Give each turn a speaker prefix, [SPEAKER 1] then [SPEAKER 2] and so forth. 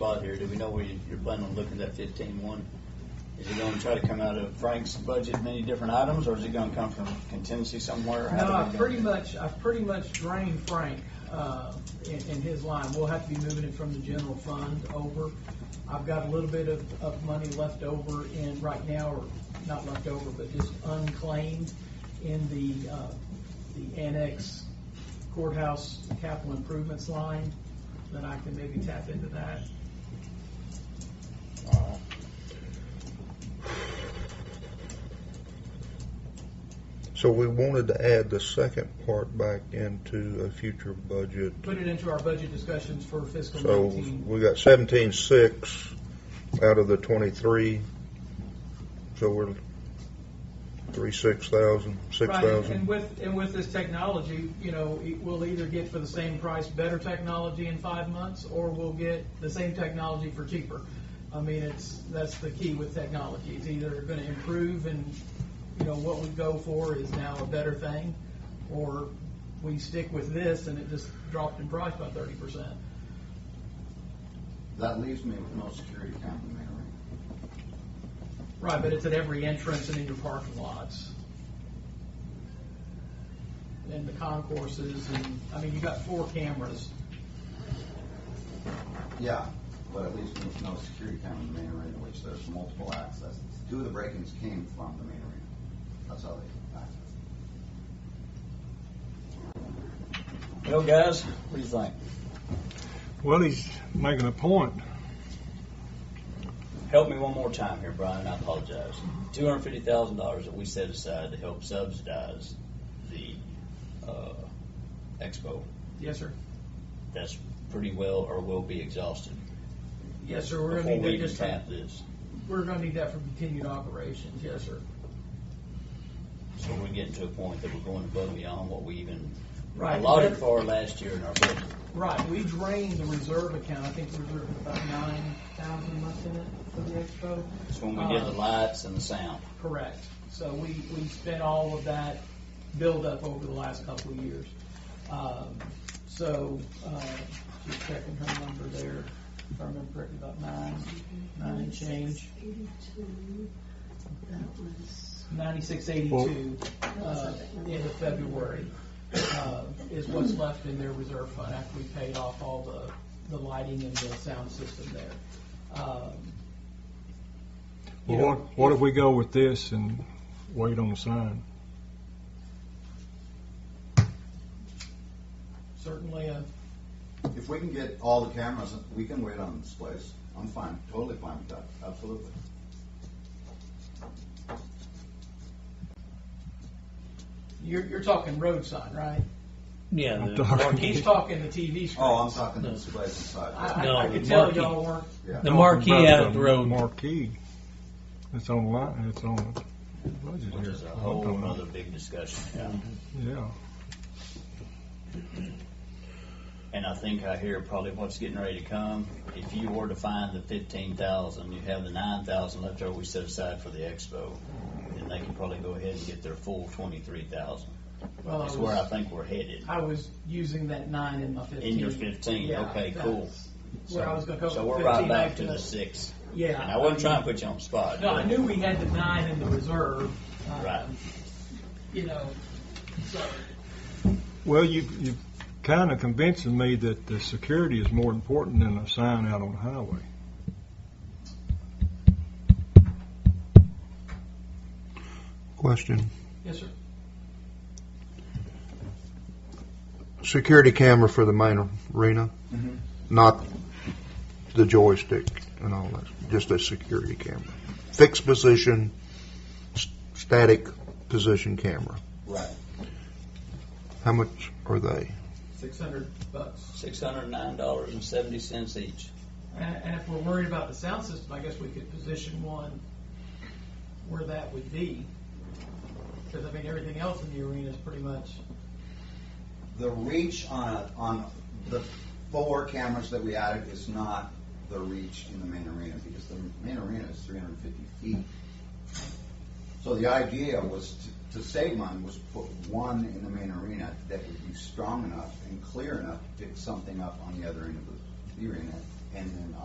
[SPEAKER 1] spot here, do we know where you- you're planning on looking at fifteen one? Is it gonna try to come out of Frank's budget, many different items, or is it gonna come from contingency somewhere? How
[SPEAKER 2] No,
[SPEAKER 1] do we
[SPEAKER 2] I've
[SPEAKER 1] go?
[SPEAKER 2] pretty much, I've pretty much drained Frank, uh, in, in his line. We'll have to be moving it from the general fund over. I've got a little bit of, of money left over in, right now, or not left over, but just unclaimed in the, uh, the annex courthouse capital improvements line, then I can maybe tap into that.
[SPEAKER 1] Alright.
[SPEAKER 3] So we wanted to add the second part back into a future budget.
[SPEAKER 2] Put it into our budget discussions for fiscal
[SPEAKER 3] So
[SPEAKER 2] nineteen.
[SPEAKER 3] we got seventeen six out of the twenty-three. So we're three, six thousand, six
[SPEAKER 2] Right, and- And
[SPEAKER 3] thousand.
[SPEAKER 2] with, and with this technology, you know, e- we'll either get for the same price, better technology in five months, or we'll get the same technology for cheaper. I mean, it's, that's the key with technology, it's either gonna improve and, you know, what we go for is now a better thing, or we stick with this and it just dropped in price by thirty percent.
[SPEAKER 1] That leaves me with no security complimentary.
[SPEAKER 2] Right, but it's at every entrance and in your parking lots. And the concourses, and, I mean, you got four cameras.
[SPEAKER 4] Yeah, but at least there's no security camera in the main arena, which there's multiple accesses. Two of the break-ins came from the main arena. That's how they accessed.
[SPEAKER 1] Well, guys, what do you think?
[SPEAKER 5] Well, he's making a point.
[SPEAKER 1] Help me one more time here, Brian, I apologize. Two hundred fifty thousand dollars that we set aside to help subsidize the, uh, expo,
[SPEAKER 2] Yes, sir.
[SPEAKER 1] that's pretty well, or will be exhausted.
[SPEAKER 2] Yes, sir, we're gonna
[SPEAKER 1] Before we
[SPEAKER 2] need that
[SPEAKER 1] even
[SPEAKER 2] just,
[SPEAKER 1] tap this.
[SPEAKER 2] we're gonna need that for continued operations, yes, sir.
[SPEAKER 1] So we're getting to a point that we're going above and beyond what we even
[SPEAKER 2] Right.
[SPEAKER 1] allotted for last year in our budget.
[SPEAKER 2] Right, we drained the reserve account, I think the reserve was about nine thousand left in it for the expo.
[SPEAKER 1] It's when we did
[SPEAKER 2] Uh,
[SPEAKER 1] the lights and the sound.
[SPEAKER 2] Correct, so we, we spent all of that buildup over the last couple of years. Um, So, uh, just checking her number there, if I remember correctly, about nine, nine and change,
[SPEAKER 6] Eighty-two, that was,
[SPEAKER 2] ninety-six eighty-two, uh, end of February, uh, is what's left in their reserve fund after we paid off all the, the lighting and the sound system there. Um, you
[SPEAKER 5] Well,
[SPEAKER 2] know,
[SPEAKER 5] what, what if we go with this and wait on the sign?
[SPEAKER 2] Certainly a
[SPEAKER 4] If we can get all the cameras, we can wait on displays. I'm fine, totally fine with that, absolutely.
[SPEAKER 2] You're, you're talking road sign, right?
[SPEAKER 7] Yeah,
[SPEAKER 5] I'm
[SPEAKER 7] the
[SPEAKER 5] talking-
[SPEAKER 2] He's
[SPEAKER 7] marquee,
[SPEAKER 2] talking the TV screen.
[SPEAKER 4] Oh, I'm talking the displays inside.
[SPEAKER 2] I,
[SPEAKER 7] No,
[SPEAKER 2] I, I could
[SPEAKER 7] the
[SPEAKER 2] tell
[SPEAKER 7] marquee.
[SPEAKER 2] y'all weren't,
[SPEAKER 4] Yeah.
[SPEAKER 7] the marquee out of the road.
[SPEAKER 5] Marquee. It's on line, it's on the budget
[SPEAKER 1] Which
[SPEAKER 5] here.
[SPEAKER 1] is a whole other big discussion. Yeah.
[SPEAKER 5] Yeah,
[SPEAKER 1] And I think I hear probably what's getting ready to come. If you were to find the fifteen thousand, you have the nine thousand left over we set aside for the expo. Then they can probably go ahead and get their full twenty-three thousand.
[SPEAKER 2] well, I
[SPEAKER 1] That's where I
[SPEAKER 2] Oh, was,
[SPEAKER 1] think we're headed.
[SPEAKER 2] I was using that nine in my fifteen.
[SPEAKER 1] In your fifteen,
[SPEAKER 2] Yeah,
[SPEAKER 1] okay,
[SPEAKER 2] that's
[SPEAKER 1] cool.
[SPEAKER 2] Where I was gonna go.
[SPEAKER 1] So we're
[SPEAKER 2] 15
[SPEAKER 1] right back to
[SPEAKER 2] the-
[SPEAKER 1] the six.
[SPEAKER 2] Yeah.
[SPEAKER 1] And I wasn't trying to put you on the spot.
[SPEAKER 2] No, I
[SPEAKER 1] but-
[SPEAKER 2] knew we had the nine in the reserve. um,
[SPEAKER 1] Right.
[SPEAKER 2] You know, so,
[SPEAKER 5] well, you, you kinda convincing me that the security is more important than a sign out on the highway.
[SPEAKER 3] Question,
[SPEAKER 2] yes, sir.
[SPEAKER 3] security camera for the main arena,
[SPEAKER 2] Mm-hmm.
[SPEAKER 1] Mhm.
[SPEAKER 3] not the joystick and all that, just a security camera. Fixed position, s- static position camera.
[SPEAKER 1] Right.
[SPEAKER 3] How much are they?
[SPEAKER 2] Six hundred bucks.
[SPEAKER 1] Six hundred and nine dollars and seventy cents each.
[SPEAKER 2] And, and if we're worried about the sound system, I guess we could position one where that would be. Cause I mean, everything else in the arena is pretty much,
[SPEAKER 4] The reach on, a- on the four cameras that we added is not the reach in the main arena, because the main arena is three hundred and fifty feet. So the idea was to, to save money was to put one in the main arena that would be strong enough and clear enough to pick something up on the other end of the- the arena, and then